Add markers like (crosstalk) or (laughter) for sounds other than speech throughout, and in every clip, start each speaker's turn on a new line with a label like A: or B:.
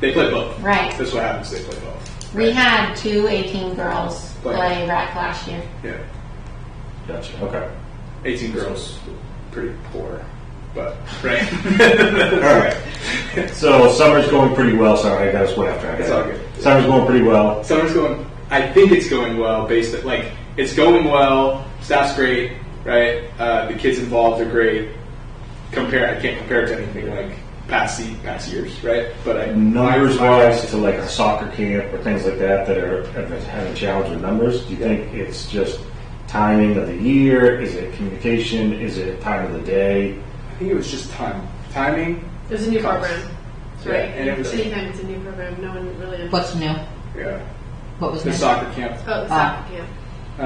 A: They play both.
B: Right.
A: That's what happens. They play both.
B: We had two 18 girls
A: Play.
B: play rec last year.
A: Yeah.
C: Gotcha. Okay.
A: 18 girls, pretty poor, but right. All right.
C: So summer's going pretty well. Sorry, I got us went after. I got
A: It's all good.
C: Summer's going pretty well.
A: Summer's going. I think it's going well. Based on, like it's going well. Staff's great, right? Uh, the kids involved are great. Compare. I can't compare it to anything like past se- past years, right? But I
C: Mm. Numbers
A: my-
C: wise, to like a soccer camp or things like that that are having challenge with numbers. Do you think it's just timing of the year? Is it communication? Is it time of the day?
A: I think it was just time, timing.
D: It was a new
A: Cost.
D: program. That's
A: Yeah,
D: right.
A: and it was-
D: Anytime it's a new program, no one really understands.
E: What's new?
A: Yeah.
E: What was
A: The
E: new?
A: soccer camp.
D: Oh, the
E: Ah.
D: soccer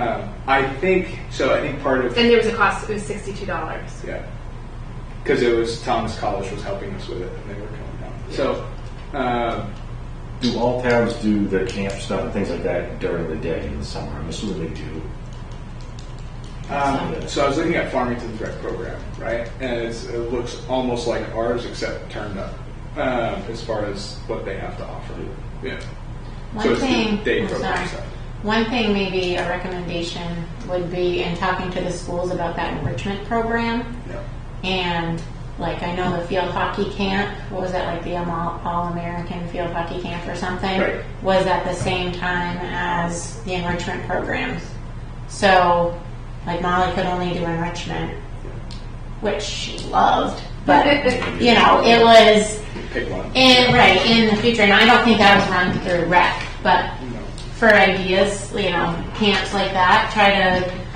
D: camp.
A: Um, I think so. I think part of
D: And there was a cost, it was $62.
A: Yeah. Because it was Thomas College was helping us with it, and they were coming down. So, um,
C: Do all towns do their camp stuff and things like that during the day in the summer? I'm assuming they do.
A: um, so I was looking at Farmington's rec program, right? And it's, it looks almost like ours, except turned up um, as far as what they have to offer. Yeah.
B: One
A: So it's
B: thing,
A: the day
B: I'm
A: program
B: sorry.
A: stuff.
B: One thing, maybe a recommendation would be in talking to the schools about that enrichment program.
A: Yeah.
B: And like, I know the field hockey camp, what was that, like the All- All-American Field Hockey Camp or something?
A: Right.
B: Was at the same time as the enrichment programs. So, like Molly could only do enrichment, which she loved, but, you know, it was,
A: Pick one.
B: in, right, in the future, and I don't think that was run through rec, but
A: You know.
B: for ideas, you know, camps like that, try to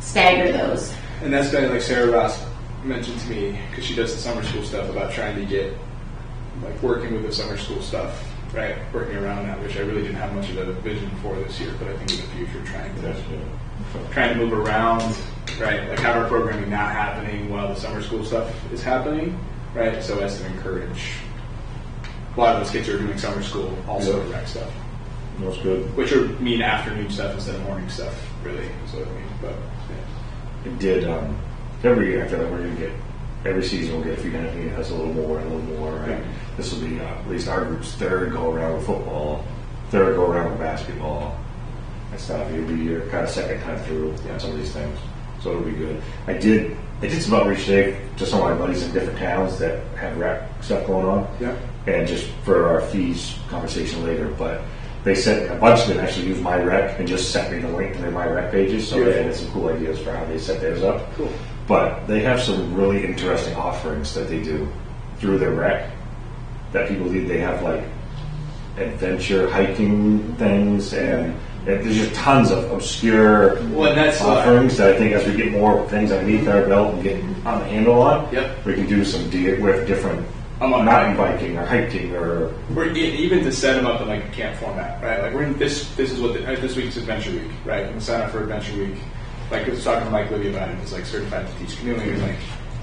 B: stagger those.
A: And that's been like Sarah Ross mentioned to me because she does the summer school stuff about trying to get like working with the summer school stuff, right? Working around that, which I really didn't have much of a vision for this year, but I think in the future trying to trying to move around, right? Like have our programming not happening while the summer school stuff is happening, right? So as to encourage a lot of those kids who are doing summer school also
C: Yeah.
A: rec stuff,
C: That's good.
A: which would mean afternoon stuff instead of morning stuff, really. Is what I mean, but. Yeah.
C: It did um, every year. I feel like we're gonna get every season. We'll get a few you know, us a little more, a little more. Right.
A: Yeah.
C: This will be uh, at least our group's third go around with football, third go around with basketball, and stuff. It'll be your kind of second time through on some of these things. So it'll be good. I did. I did some outreach today to some of my buddies in different towns that have rap stuff going on.
A: Yeah.
C: And just for our fees conversation later, but. They sent a bunch of them actually use my rec and just sent me the link to their my rec pages, so they
A: Beautiful.
C: had some cool ideas for how they set theirs up.
A: Cool.
C: But they have some really interesting offerings that they do through their rec that people do. They have like adventure hiking things, and and there's just tons of obscure
A: Well, and that's uh, what-
C: offerings that I think as we get more things underneath our belt and get on the handle on,
A: Yep.
C: we can do some de- with different
A: I'm on-
C: mountain biking or hiking or
A: We're e- even to set them up in like a camp format, right? Like we're in this. This is what the, uh, this week's Adventure Week, right? And sign up for Adventure Week. Like I was talking to Mike Libby about it. He's like certified to teach canoeing, and like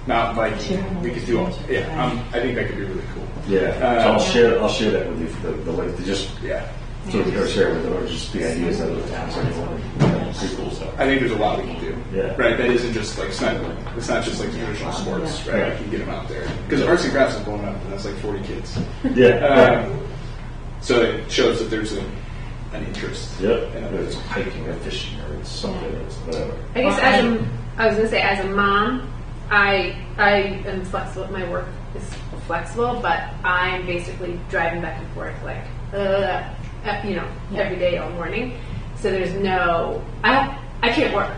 A: mountain biking. We could do all. Yeah, um, I think that could be really cool.
C: yeah. so
A: Uh,
C: I'll share I'll share that with you the, the link to just
A: Yeah,
C: so we can share with them or just the ideas that the towns are doing. Yeah, Pretty cool stuff.
A: I think there's a lot we can do.
C: Yeah.
A: Right. That isn't just like it's not, it's not just like traditional sports, right?
C: Yeah.
A: I can get them out there because arts and crafts is blowing up, and that's like 40 kids.
C: Yeah. Uh,
A: Um, so it shows that there's a, an interest.
C: Yep.
A: in
C: And
A: others.
C: it's hiking or fishing or it's something or it's whatever.
D: I guess as a, I was gonna say as a mom, I I am flexible. My work is flexible, but I'm basically driving back and forth like uh, uh, you know every day all morning. So there's no I I can't work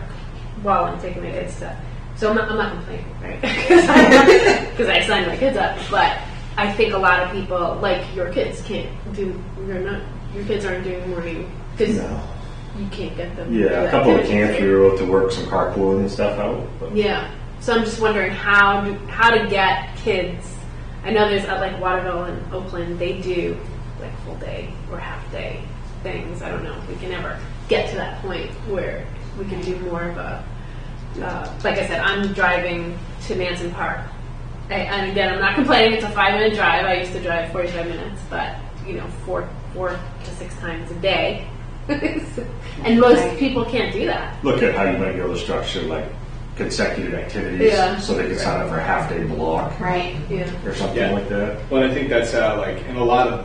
D: while I'm taking my kids to. So I'm not, I'm not complaining, right? (laughs) Because I signed my kids up, but I think a lot of people like your kids can't do. You're not your kids aren't doing morning because
C: No.
D: you can't get them. to do
C: Yeah, a couple of
D: activities.
C: camps we were able to work some carpooling and stuff out. But
D: Yeah. So I'm just wondering how do, how to get kids. I know there's uh, like Waterville and Oakland. They do like full day or half day things. I don't know if we can ever get to that point where we can do more of a. Uh, like I said, I'm driving to Manson Park, I, and again, I'm not complaining. It's a five minute drive. I used to drive 45 minutes, but you know, four four to six times a day, (laughs) and most people can't do that.
C: Look at how you might be able to structure like consecutive activities
D: Yeah.
C: so they can sign up for a half day block
B: Right.
D: Yeah.
C: or something
A: Yeah.
C: like that.
A: Well, I think that's how like in a lot of